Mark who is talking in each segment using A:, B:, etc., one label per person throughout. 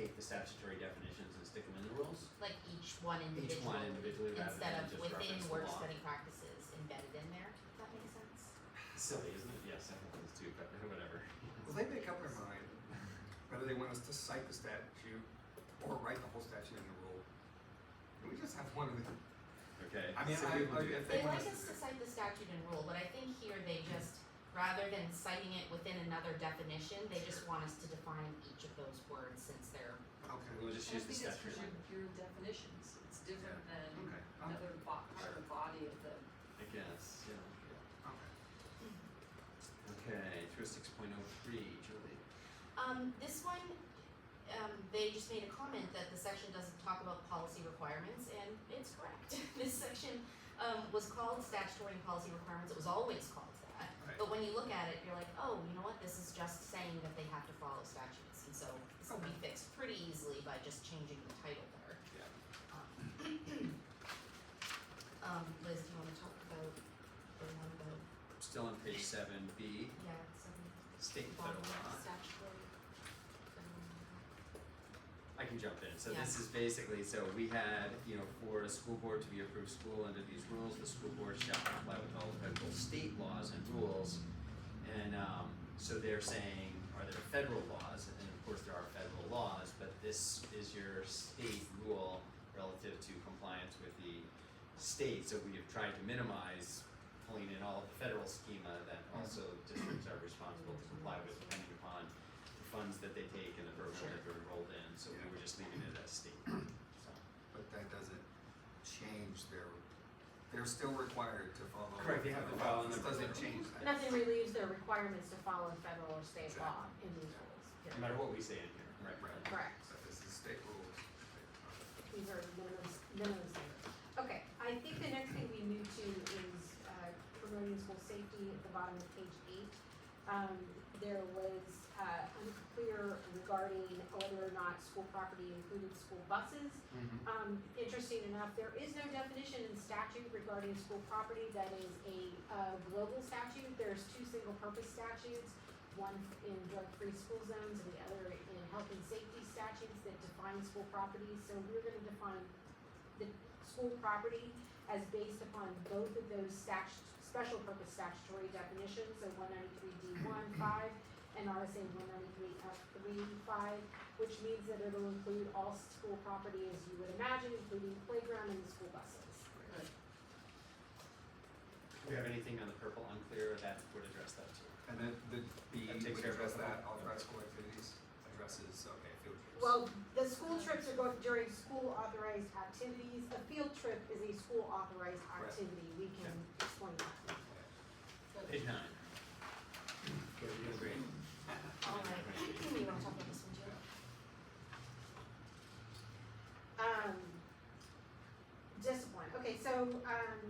A: the statutory definitions and stick them in the rules.
B: like each one individually.
A: Each one individually rather
B: Instead
A: than
B: of
A: just
B: within
A: reference the
B: work
A: law.
B: study practices embedded in there, if that makes sense.
A: Silly, isn't it? Yes, I think it is too, but whatever.
C: Well, they make up their mind whether they want us to cite the statute or write the whole statute in the rule. Can we just have one of the,
A: Okay.
C: I mean,
A: so we
C: I-
A: will
C: I-
A: do-
C: if
B: They like
C: want us
B: us to
C: to-
B: cite the statute and rule, but I think here they just, rather than citing it within another definition, they just want us to define each of those words since they're
C: okay,
A: We'll just use the
D: I think
A: statute.
D: it's because your, your definitions, it's different than
C: okay, I'm-
D: another bo- part of the body of the,
A: I guess, yeah.
C: okay.
A: Okay, through six point oh three, Julie.
B: Um, this one, um, they just made a comment that the section doesn't talk about policy requirements, and it's correct. This section, um, was called statutory and policy requirements, it was always called that.
C: Right.
B: But when you look at it, you're like, oh, you know what, this is just saying that they have to follow statutes, and so this will be fixed pretty easily by just changing the title there.
A: Yeah.
B: Um, Um, Liz, do you wanna talk about, the one about,
A: Still on page seven B,
B: yeah, some
A: state and
B: bottom
A: federal law.
B: statutory, um,
A: I can jump in. So
B: Yeah.
A: this is basically, so we had, you know, for a school board to be approved school under these rules, the school board shall comply with all applicable state laws and rules. And um so they're saying, are there federal laws? And of course, there are federal laws, but this is your state rule relative to compliance with the state. So we have tried to minimize pulling in all of the federal schema that also districts are responsible to comply with depending upon the funds that they take and the program that they're enrolled in, so we were just leaving it as state. So,
C: But that doesn't change their, they're still required to follow.
A: Correct, they have to follow
C: This
A: the-
C: doesn't change that.
E: Nothing relieves their requirements to follow federal or state law in these rules.
A: No matter what we say in here, right, right.
E: Correct.
C: So this is state rules. Okay.
E: These are minimum, minimum standards. Okay, I think the next thing we move to is uh, promoting school safety at the bottom of page eight. Um, There was uh, unclear regarding whether or not school property included school buses.
C: Mm-hmm.
E: Um, interesting enough, there is no definition in statute regarding school property that is a, uh, global statute. There's two single-purpose statutes, one in drug-free school zones and the other in health and safety statutes that define school property. So we're gonna define the school property as based upon both of those statu- special purpose statutory definitions, so one ninety-three D one five and RSA one ninety-three F three five which means that it'll include all school property as you would imagine, including playground and school buses.
A: Do we have anything on the purple unclear that would address that too?
C: And then the B
A: That takes
C: would
A: care of
C: address
A: it.
C: that, authorized school activities, addresses, okay, field trips.
E: Well, the school trips are going during school authorized activities, a field trip is a school authorized
C: Right.
E: activity, we can explain that.
A: Page nine. Okay, we're doing great.
B: Alright, you wanna talk about this one too?
E: Um, discipline, okay, so, um,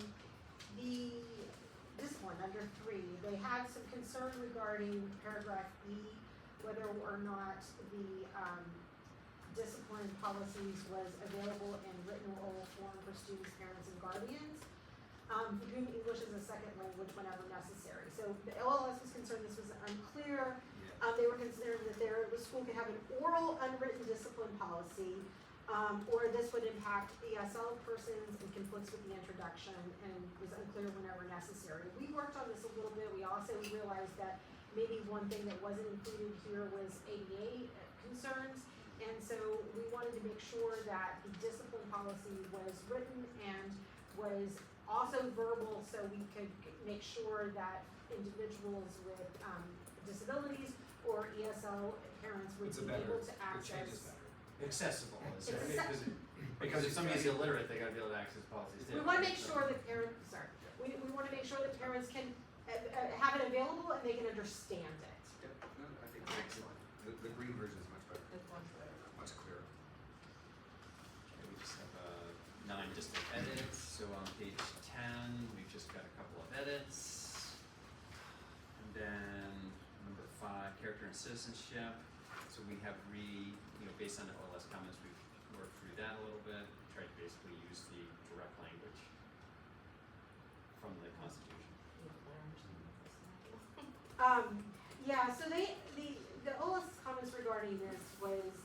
E: the discipline under three, they had some concern regarding paragraph E, whether or not the, um, discipline policies was available in written or oral form for students, parents, and guardians. Um, for whom English is a second language whenever necessary, so the LLS was concerned this was unclear,
C: Yeah.
E: uh, they were concerned that their, the school could have an oral unwritten discipline policy, um, or this would impact ESL persons and conflicts with the introduction and was unclear whenever necessary. We worked on this a little bit, we also realized that maybe one thing that wasn't included here was ADA concerns. And so we wanted to make sure that the discipline policy was written and was also verbal, so we could make sure that individuals with, um, disabilities or ESL parents would
C: It's a
E: be
C: better,
E: able to
C: it
E: access.
C: changes better.
A: Accessible, is there,
E: Access-
A: because, because if somebody's illiterate, they gotta be able to access policies.
E: We wanna make sure that parents, sorry, we, we wanna make sure that parents can, uh, uh, have it available and they can understand it.
C: Yep, no, I think it's excellent. The, the green version is much better,
D: that's one for everyone.
C: much clearer.
A: Okay, we just have uh nine just like edits, so on page ten, we've just got a couple of edits. And then number five, character and citizenship, so we have re, you know, based on the OLS comments, we've worked through that a little bit, tried to basically use the direct language from the constitution.
E: Um, yeah, so they, the, the OLS comments regarding this was,